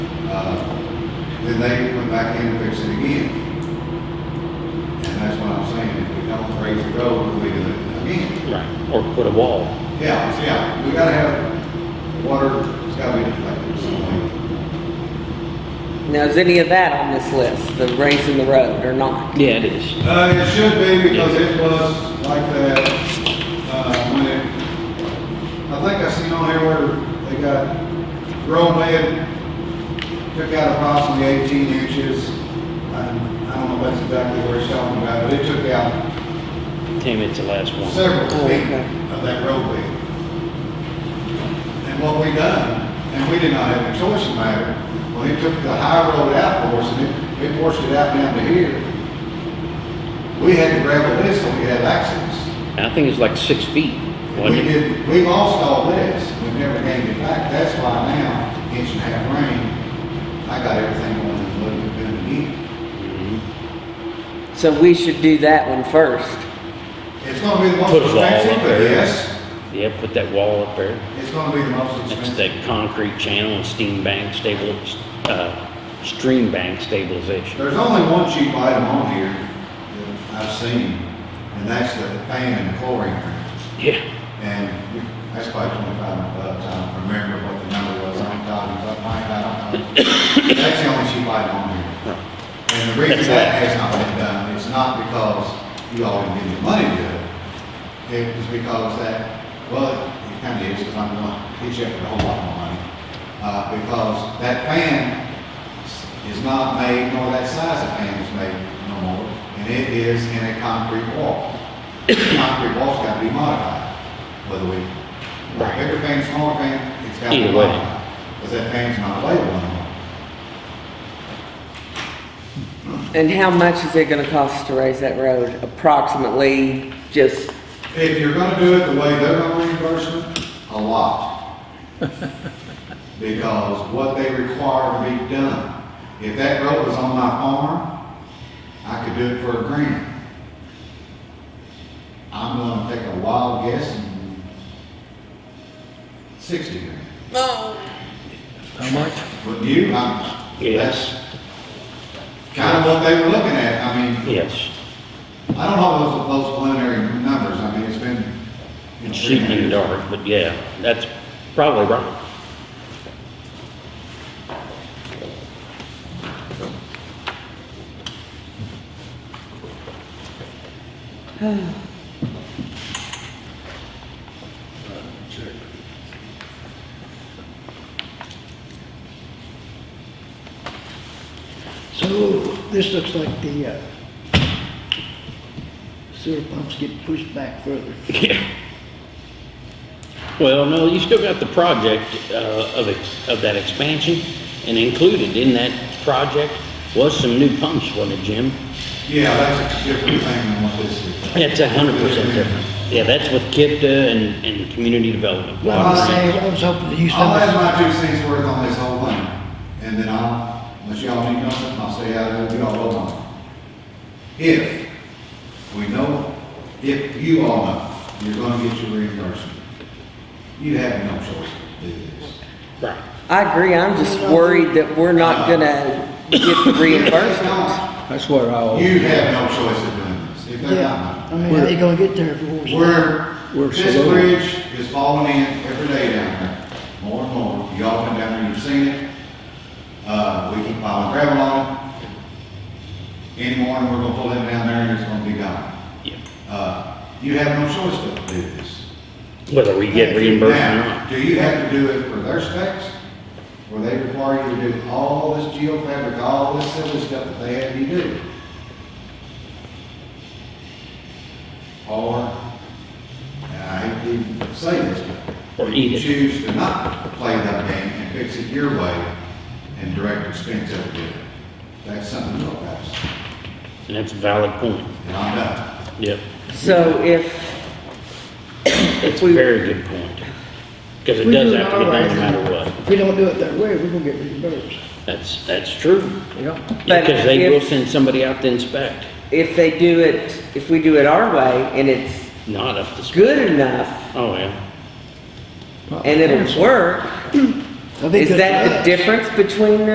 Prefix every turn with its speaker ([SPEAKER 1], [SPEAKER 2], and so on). [SPEAKER 1] Uh, Then they went back in and fixed it again. And that's what I'm saying, if we don't raise the road, we do it again.
[SPEAKER 2] Right, or put a wall.
[SPEAKER 1] Yeah, so yeah, we gotta have water, it's gotta be deflected somewhere.
[SPEAKER 3] Now, is any of that on this list, the raising the road or not?
[SPEAKER 2] Yeah, it is.
[SPEAKER 1] Uh, it should be because it was like that, uh, when it, I think I seen on here where they got grown lead, took out approximately eighteen inches. And I don't know if that's exactly where it's talking about, but it took out
[SPEAKER 2] Ten minutes the last one.
[SPEAKER 1] several
[SPEAKER 3] Oh,
[SPEAKER 1] feet
[SPEAKER 3] okay.
[SPEAKER 1] of that road bed. And what we done, and we did not have a choice in the matter, well, it took the high road out for us, and it, it forced it out down to here. We had to gravel this so we had access.
[SPEAKER 2] And I think it's like six feet,
[SPEAKER 1] We
[SPEAKER 2] wasn't it?
[SPEAKER 1] did, we lost all this, we never gained it back, that's why now, inch and a half rain, I got everything on the little bit of need.
[SPEAKER 3] So we should do that one first.
[SPEAKER 1] It's gonna be the most
[SPEAKER 2] Put a wall
[SPEAKER 1] expensive,
[SPEAKER 2] up
[SPEAKER 1] but
[SPEAKER 2] there.
[SPEAKER 1] yes,
[SPEAKER 2] Yeah, put that wall up there.
[SPEAKER 1] it's gonna be the most
[SPEAKER 2] That's
[SPEAKER 1] expensive.
[SPEAKER 2] that concrete channel and steam bank stable, uh, stream bank stabilization.
[SPEAKER 1] There's only one cheap item on here that I've seen, and that's the fan and the chlorine.
[SPEAKER 2] Yeah,
[SPEAKER 1] And that's probably twenty-five hundred bucks. I don't remember what the number was on top of my mind. I don't know. That's the only cheap item on here. And the reason
[SPEAKER 2] That's
[SPEAKER 1] that
[SPEAKER 2] it.
[SPEAKER 1] has not been done is not because you all didn't give me money to do it. It was because that, well, it kind of is, because I'm going to hit you up with a whole lot more money. Uh, because that fan is not made, nor that size of fan is made no more, and it is in a concrete wall. Concrete wall's gotta be modified, whether we,
[SPEAKER 2] Right.
[SPEAKER 1] bigger fan, smaller fan, it's gotta be
[SPEAKER 2] Either way.
[SPEAKER 1] modified. Because that fan's not available anymore.
[SPEAKER 3] And how much is it gonna cost to raise that road approximately? Just,
[SPEAKER 1] If you're gonna do it the way they're gonna reimburse it, a lot. Because what they require to be done, if that road was on my farm, I could do it for a grand. I'm gonna take a wild guess and sixty grand.
[SPEAKER 4] How much?
[SPEAKER 1] But you, I'm, that's
[SPEAKER 2] yes,
[SPEAKER 1] kind of what they were looking at, I mean,
[SPEAKER 2] yes.
[SPEAKER 1] I don't know those, those preliminary numbers, I mean, it's been. you know,
[SPEAKER 2] It's shooting in the dark, but yeah, that's probably right.
[SPEAKER 5] So this looks like the uh, sewer pumps get pushed back further.
[SPEAKER 2] Yeah. Well, no, you still got the project uh, of, ex- of that expansion, and included in that project was some new pumps, wasn't it, Jim?
[SPEAKER 1] Yeah, that's a different thing than what this is.
[SPEAKER 2] That's a hundred percent different. Yeah, that's with KIPTA and, and community development.
[SPEAKER 5] Well, I was saying, I was hoping that you
[SPEAKER 1] I'll have
[SPEAKER 5] said,
[SPEAKER 1] my two cents worth on this whole thing, and then I'll, unless y'all need nothing, I'll stay out of it, you all vote on it. If we know, if you all know, you're gonna get your reimbursement, you have no choice to do this.
[SPEAKER 2] Right.
[SPEAKER 3] I agree, I'm just worried that we're not gonna get the reimbursement.
[SPEAKER 4] That's what I always,
[SPEAKER 1] You have no choice of doing this, if they're
[SPEAKER 5] yeah,
[SPEAKER 1] not.
[SPEAKER 5] I mean, how they gonna get there if it was.
[SPEAKER 1] Oh, We're,
[SPEAKER 4] We're
[SPEAKER 1] this
[SPEAKER 4] slow.
[SPEAKER 1] bridge is falling in every day down there, more and more. Y'all come down there, you've seen it. Uh, we keep piling gravel on it. Any morning, we're gonna pull it down there and it's gonna be gone.
[SPEAKER 2] Yeah.
[SPEAKER 1] Uh, you have no choice but to do this.
[SPEAKER 2] Whether we get reimbursed or
[SPEAKER 1] Now,
[SPEAKER 2] not.
[SPEAKER 1] do you have to do it for their specs? Where they require you to do all this geofabric, all this silly stuff that they have you do? Or, and I hate to say this, but
[SPEAKER 2] Or eat
[SPEAKER 1] you
[SPEAKER 2] it.
[SPEAKER 1] choose to not play that game and fix it your way and direct expense over it. That's something to look at,
[SPEAKER 2] And that's a valid point.
[SPEAKER 1] and I'm done.
[SPEAKER 2] Yep.
[SPEAKER 3] So if
[SPEAKER 2] It's a
[SPEAKER 3] We-
[SPEAKER 2] very good point. Because it
[SPEAKER 5] We
[SPEAKER 2] does
[SPEAKER 5] do
[SPEAKER 2] have to be done
[SPEAKER 5] alright.
[SPEAKER 2] no matter what.
[SPEAKER 5] If we don't do it that way, we're gonna get reimbursed.
[SPEAKER 2] That's, that's true.
[SPEAKER 4] yeah.
[SPEAKER 3] But
[SPEAKER 2] Because they will
[SPEAKER 3] if-
[SPEAKER 2] send somebody out to inspect,
[SPEAKER 3] if they do it, if we do it our way and it's
[SPEAKER 2] not up to speed.
[SPEAKER 3] good enough
[SPEAKER 2] Oh, yeah.
[SPEAKER 3] and it'll work,
[SPEAKER 5] That'd be
[SPEAKER 3] is
[SPEAKER 5] good for
[SPEAKER 3] that the
[SPEAKER 5] us.
[SPEAKER 3] difference between